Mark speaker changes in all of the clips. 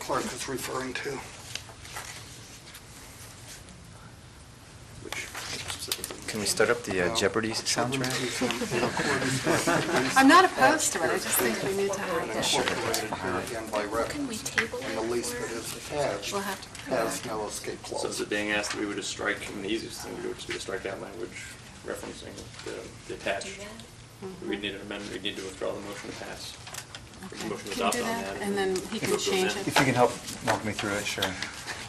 Speaker 1: clerk is referring to. Which-
Speaker 2: Can we start up the uh, Jeopardy soundtrack?
Speaker 3: I'm not opposed to it, I just think we need to have it.
Speaker 1: Incorporated here again by
Speaker 4: Can we
Speaker 1: reference,
Speaker 4: table
Speaker 1: and the
Speaker 4: it
Speaker 1: lease that
Speaker 4: for,
Speaker 1: is attached
Speaker 3: We'll have to.
Speaker 1: has no escape
Speaker 5: So is
Speaker 1: clause.
Speaker 5: it being asked that we would just strike, and the easiest thing to do would just be to strike that language referencing the- the
Speaker 4: do
Speaker 5: attached.
Speaker 4: that?
Speaker 5: We'd need an amendment, we'd need to withdraw the motion to pass.
Speaker 3: Okay.
Speaker 5: Motion to
Speaker 3: Can you
Speaker 5: adopt
Speaker 3: do
Speaker 5: on
Speaker 3: that?
Speaker 5: that.
Speaker 3: And then he can
Speaker 5: Motion
Speaker 3: change
Speaker 5: amend.
Speaker 3: it.
Speaker 2: If you can help walk me through it, sure.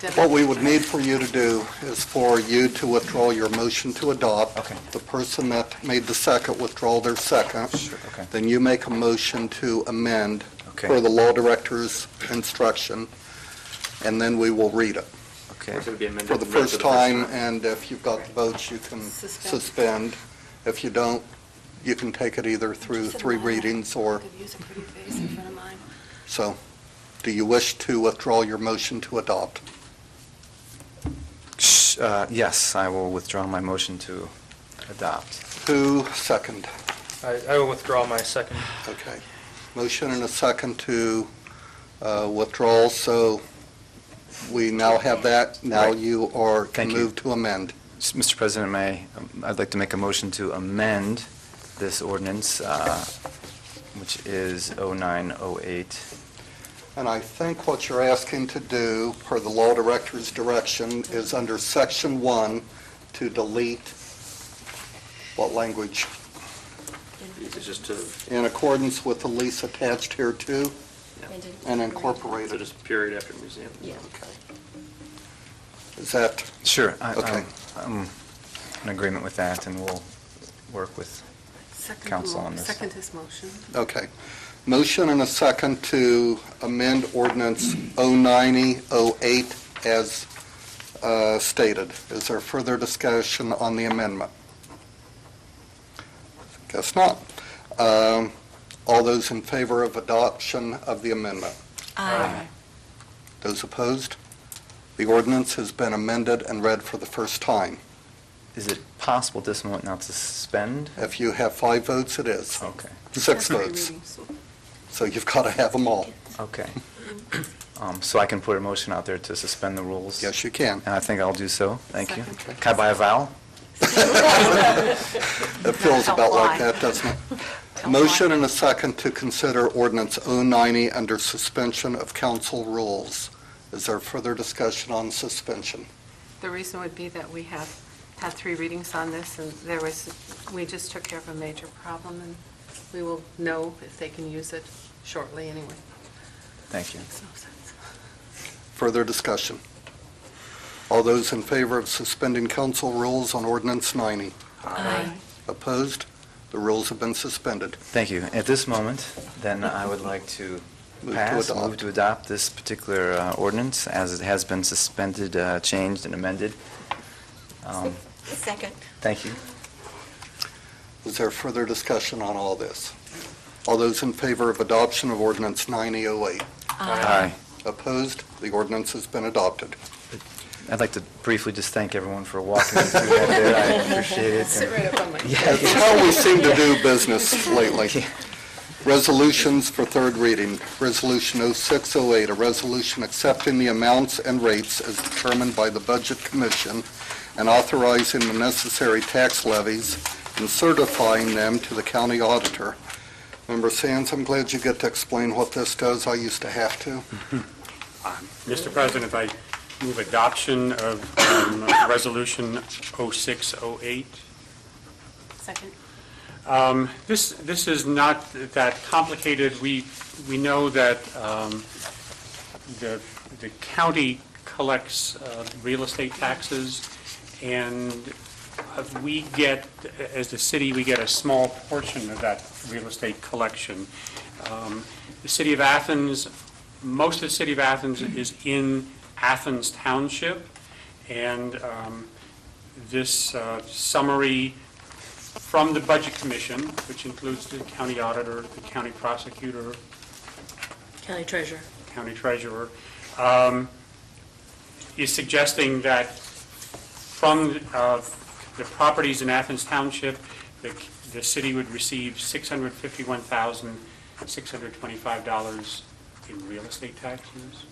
Speaker 3: Debbie.
Speaker 1: What we would need for you to do is for you to withdraw your motion to adopt.
Speaker 2: Okay.
Speaker 1: The person that made the second withdraw their second.
Speaker 2: Okay.
Speaker 1: Then you make a motion to amend
Speaker 2: Okay.
Speaker 1: per the law director's instruction, and then we will read it
Speaker 2: Okay.
Speaker 5: Or it would be amended
Speaker 1: for the
Speaker 5: amended
Speaker 1: first time, and if you've got the votes, you can
Speaker 3: Suspend.
Speaker 1: suspend. If you don't, you can take it either through
Speaker 3: Just a
Speaker 1: three
Speaker 3: minor.
Speaker 1: readings or,
Speaker 3: Could use a pretty face in front of mine.
Speaker 1: so, do you wish to withdraw your motion to adopt?
Speaker 2: Sh- uh, Yes, I will withdraw my motion to adopt.
Speaker 1: Who second?
Speaker 6: I, I will withdraw my second.
Speaker 1: Okay. Motion and a second to uh, withdraw, so we now have that. Now
Speaker 2: Right.
Speaker 1: you are
Speaker 2: Thank you.
Speaker 1: moved to amend.
Speaker 2: S- Mr. President, may, um, I'd like to make a motion to amend this ordinance, uh, which is 0908.
Speaker 1: And I think what you're asking to do, per the law director's direction, is under section one, to delete what language?
Speaker 5: It's just to,
Speaker 1: In accordance with the lease attached here to
Speaker 4: And incorporate.
Speaker 1: and
Speaker 5: so
Speaker 1: incorporated.
Speaker 5: just period after museum.
Speaker 4: Yeah.
Speaker 1: Is that,
Speaker 2: Sure. I- um,
Speaker 1: Okay.
Speaker 2: I'm I'm in agreement with that, and we'll work with,
Speaker 3: Second the
Speaker 2: Counsel
Speaker 3: mo-
Speaker 2: on this.
Speaker 3: Second his motion.
Speaker 1: okay. Motion and a second to amend ordinance 09008 as uh, stated. Is there further discussion on the amendment? Guess not. Um, All those in favor of adoption of the amendment?
Speaker 6: Aye.
Speaker 1: Those opposed? The ordinance has been amended and read for the first time.
Speaker 2: is it possible at this moment now to suspend?
Speaker 1: If you have five votes, it is.
Speaker 2: Okay,
Speaker 1: Six
Speaker 3: Three
Speaker 1: votes.
Speaker 3: readings.
Speaker 1: So you've got to have them all.
Speaker 2: okay. Um, So I can put a motion out there to suspend the rules?
Speaker 1: Yes, you can.
Speaker 2: And I think I'll do so. Thank you.
Speaker 3: Second.
Speaker 2: Can I buy a vowel?
Speaker 1: It feels about like
Speaker 3: Tell why.
Speaker 1: that, doesn't it?
Speaker 3: Tell
Speaker 1: Motion
Speaker 3: why.
Speaker 1: and a second to consider ordinance 090 under suspension of council rules. Is there further discussion on suspension?
Speaker 3: The reason would be that we have had three readings on this, and there was, we just took care of a major problem, and we will know if they can use it shortly anyway.
Speaker 2: Thank you.
Speaker 3: Makes no sense.
Speaker 1: Further discussion? All those in favor of suspending council rules on ordinance 90?
Speaker 4: Aye.
Speaker 1: Opposed? The rules have been suspended.
Speaker 2: Thank you. At this moment, then I would like to
Speaker 1: Move to
Speaker 2: pass,
Speaker 1: adopt.
Speaker 2: move to adopt this particular uh, ordinance as it has been suspended, uh, changed, and amended. Um,
Speaker 4: Second.
Speaker 2: Thank you.
Speaker 1: Is there further discussion on all this? All those in favor of adoption of ordinance 9008?
Speaker 2: Aye.
Speaker 1: Opposed? The ordinance has been adopted.
Speaker 2: I'd like to briefly just thank everyone for walking me through that there. I appreciate it.
Speaker 3: Sit right up on my...
Speaker 1: That's how we seem to do business lately.
Speaker 2: Yeah.
Speaker 1: Resolutions for third reading. Resolution 0608, a resolution accepting the amounts and rates as determined by the Budget Commission and authorizing the necessary tax levies and certifying them to the county auditor. Member Sands, I'm glad you get to explain what this does. I used to have to.
Speaker 7: Mr. President, if I move adoption of um, Resolution 0608.
Speaker 3: Second.
Speaker 7: Um, This, this is not that complicated. We, we know that um, the, the county collects uh, real estate taxes, and uh, we get, as the city, we get a small portion of that real estate collection. Um, The city of Athens, most of the city of Athens is in Athens Township, and um, this uh, summary from the Budget Commission, which includes the county auditor, the county prosecutor,
Speaker 3: County Treasurer.
Speaker 7: county treasurer, um, is suggesting that from uh, the properties in Athens Township, the the city would receive $651,625 in real estate taxes.